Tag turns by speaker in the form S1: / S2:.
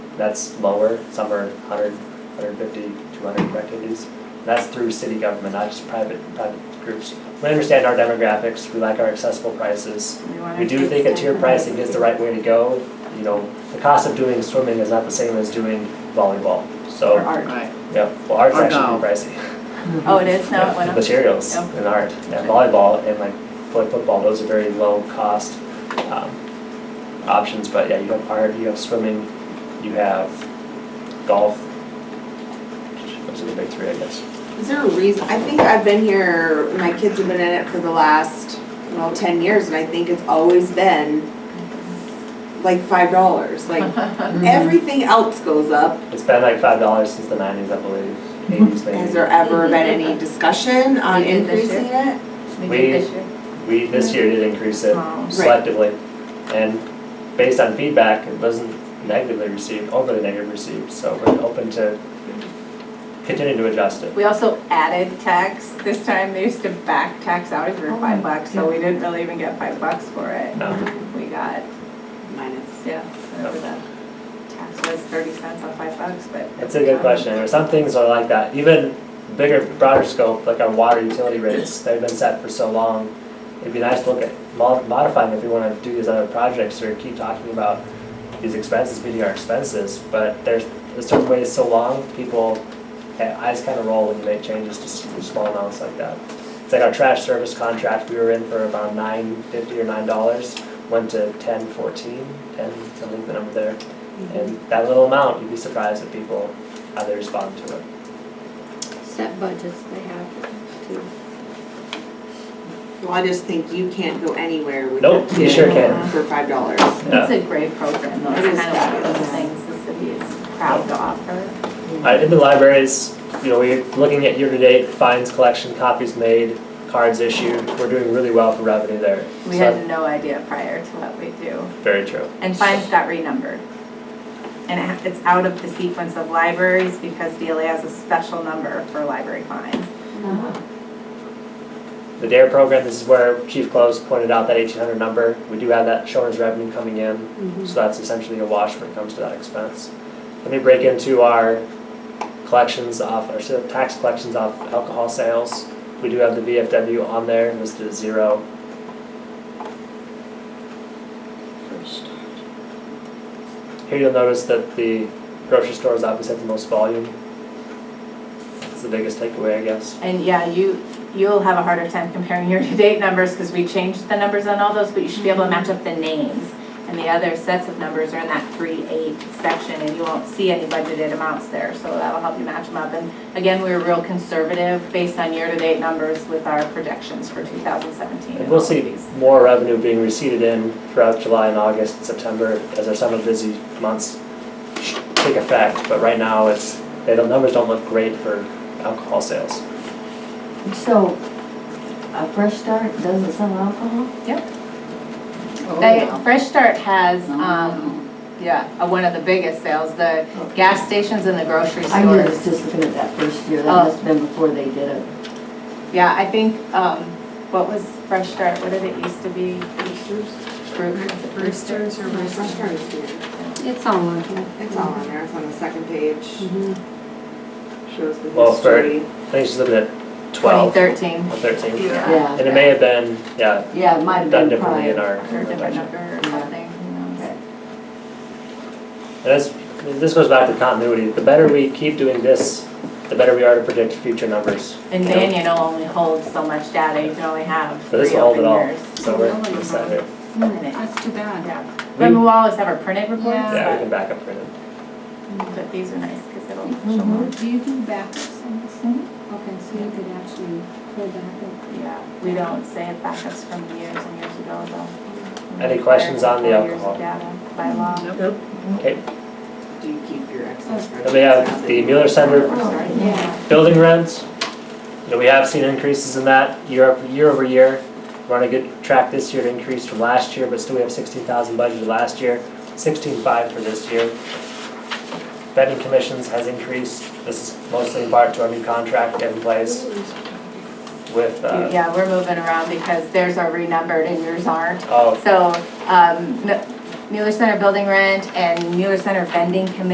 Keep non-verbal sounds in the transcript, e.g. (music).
S1: that's lower, some are 100, 150, 200 activities. That's through city government, not just private, private groups. We understand our demographics, we like our accessible prices. We do think a tier pricing is the right way to go. You know, the cost of doing swimming is not the same as doing volleyball, so,
S2: Or art.
S3: Right.
S1: yeah, well, art's
S3: Or
S1: actually
S3: golf.
S1: pretty pricey.
S2: Oh, it is
S1: Yeah,
S2: now one
S1: the
S2: of
S1: materials
S2: Yep.
S1: and art, and volleyball and like fo- football, those are very low cost um, options, but yeah, you have art, you have swimming, you have golf. Those are the big three, I guess.
S4: Is there a reason, I think I've been here, my kids have been in it for the last, well, ten years, and I think it's always been like five dollars,
S2: (laughs)
S4: like,
S1: Mm-hmm.
S4: everything else goes up.
S1: It's been like five dollars since the nineties, I believe, eighties
S4: Has
S1: maybe.
S4: Mm-hmm. there ever been any discussion on
S2: We did Mm-hmm. this year.
S4: increasing it?
S1: We- We, this year did increase it
S2: Oh.
S4: Right.
S1: selectively, and based on feedback, it wasn't negatively received, overly negatively received, so we're open to continuing to adjust it.
S2: We also added tax, this time they used to back tax out if
S4: Oh,
S2: you were five bucks, so we didn't really even get five bucks for it.
S1: No.
S2: We got,
S4: Minus.
S2: yeah, whatever the tax was, thirty cents on five bucks, but.
S1: That's a good question, or some things are like that, even bigger, broader scope, like our water utility rates, they've been set for so long. It'd be nice to look at mo- modifying if we wanna do these other projects, or keep talking about these expenses being our expenses, but there's, a certain way is so long, people, eh, eyes kinda roll when you make changes to s- small amounts like that. It's like our trash service contract, we were in for about nine fifty or nine dollars, went to ten fourteen, ten, I think the number there. And that little amount, you'd be surprised at people, how they respond to it.
S5: Set budgets they have to.
S4: Well, I just think you can't go anywhere with.
S1: Nope,
S4: your
S1: you
S4: kid
S1: sure can.
S4: For five dollars.
S1: Yeah.
S2: It's a great program, though,
S4: It is
S2: it's kind of one of those
S4: fabulous.
S2: things the city is proud to offer.
S1: Uh, in the libraries, you know, we're looking at year-to-date fines collection, copies made, cards issued, we're doing really well for revenue there.
S2: We
S1: So
S2: had no idea prior to what we do.
S1: that's Very true.
S2: And fines got renumbered. And it ha- it's out of the sequence of libraries because DLA has a special number for library fines. Uh-huh.
S1: The DARE program, this is where Chief Close pointed out that eighteen hundred number, we do have that shown as revenue coming in, so that's essentially a wash when it comes to that expense. Let me break into our collections off, our sort of tax collections off alcohol sales. We do have the VFW on there, listed as zero.
S5: First.
S1: Here you'll notice that the grocery stores obviously have the most volume. That's the biggest takeaway, I guess.
S2: And yeah, you, you'll have a harder time comparing (laughs) year-to-date numbers because we changed the numbers on all those, but you should be able to match up the names. And the other sets of numbers are in that three eight section and you won't see any budgeted amounts there, so that'll help you match them up. And again, we were real conservative based on year-to-date numbers with our projections for two thousand seventeen.
S1: And we'll see more revenue being receipted in throughout July and August and September as our summer busy months take effect. But right now, it's, the numbers don't look great for alcohol sales.
S6: So, a fresh start doesn't sell alcohol?
S2: They, Fresh Start has, um, yeah, uh, one of the biggest sales, the gas stations and the grocery
S6: I was
S2: stores.
S6: just looking at that first year,
S2: Oh.
S6: that must have been before they did it.
S2: Yeah, I think, um, what was Fresh Start, what did it used to be? Brew-
S3: Roosters or roosters?
S4: Restaurants here.
S5: It's all on here.
S4: It's all on there, it's on the second page,
S5: Mhm.
S2: Mm-hmm.
S4: shows the
S1: Well, for-
S4: history.
S1: I think she's looking at twelve or
S2: 2013.
S1: thirteen.
S2: Yeah.
S6: Yeah,
S1: And it may have been, yeah,
S6: yeah, it might have
S1: done
S6: been
S1: differently in
S6: prior.
S1: our.
S2: Or a different number or
S6: Yeah.
S2: something, who knows?
S1: And that's, this goes back to continuity, the better we keep doing this, the better we are to predict future numbers.
S2: And then you know, only holds so much data, you can only have
S1: But this
S2: three
S1: will hold it
S2: open
S1: all,
S2: years.
S1: so we're excited.
S5: That's too bad.
S2: Yeah.
S1: We-
S2: Remember, we'll always have our printed reports,
S1: Yeah, we
S2: but,
S1: can back up for it.
S2: but these are nice because it'll show more.
S5: Do you do backups on this? Okay, so you could actually pull back
S2: Yeah, we don't save backups from years and years ago, though.
S1: Any questions on the
S2: Four years of
S1: alcohol?
S2: data By law.
S1: Okay,
S4: Do you keep your excess? Oh,
S1: and we have the Mueller Center
S5: up. Yeah.
S1: building rents. You know, we have seen increases in that year, up- year over year. We're on a good track this year to increase from last year, but still we have sixteen thousand budgeted last year, sixteen five for this year. Betting commissions has increased, this is mostly in part to our new contract we have in place with, uh,
S2: Yeah, we're moving around because theirs are renumbered and yours aren't.
S1: oh,
S2: So, um, Mu- Mueller Center building rent and Mueller Center vending committee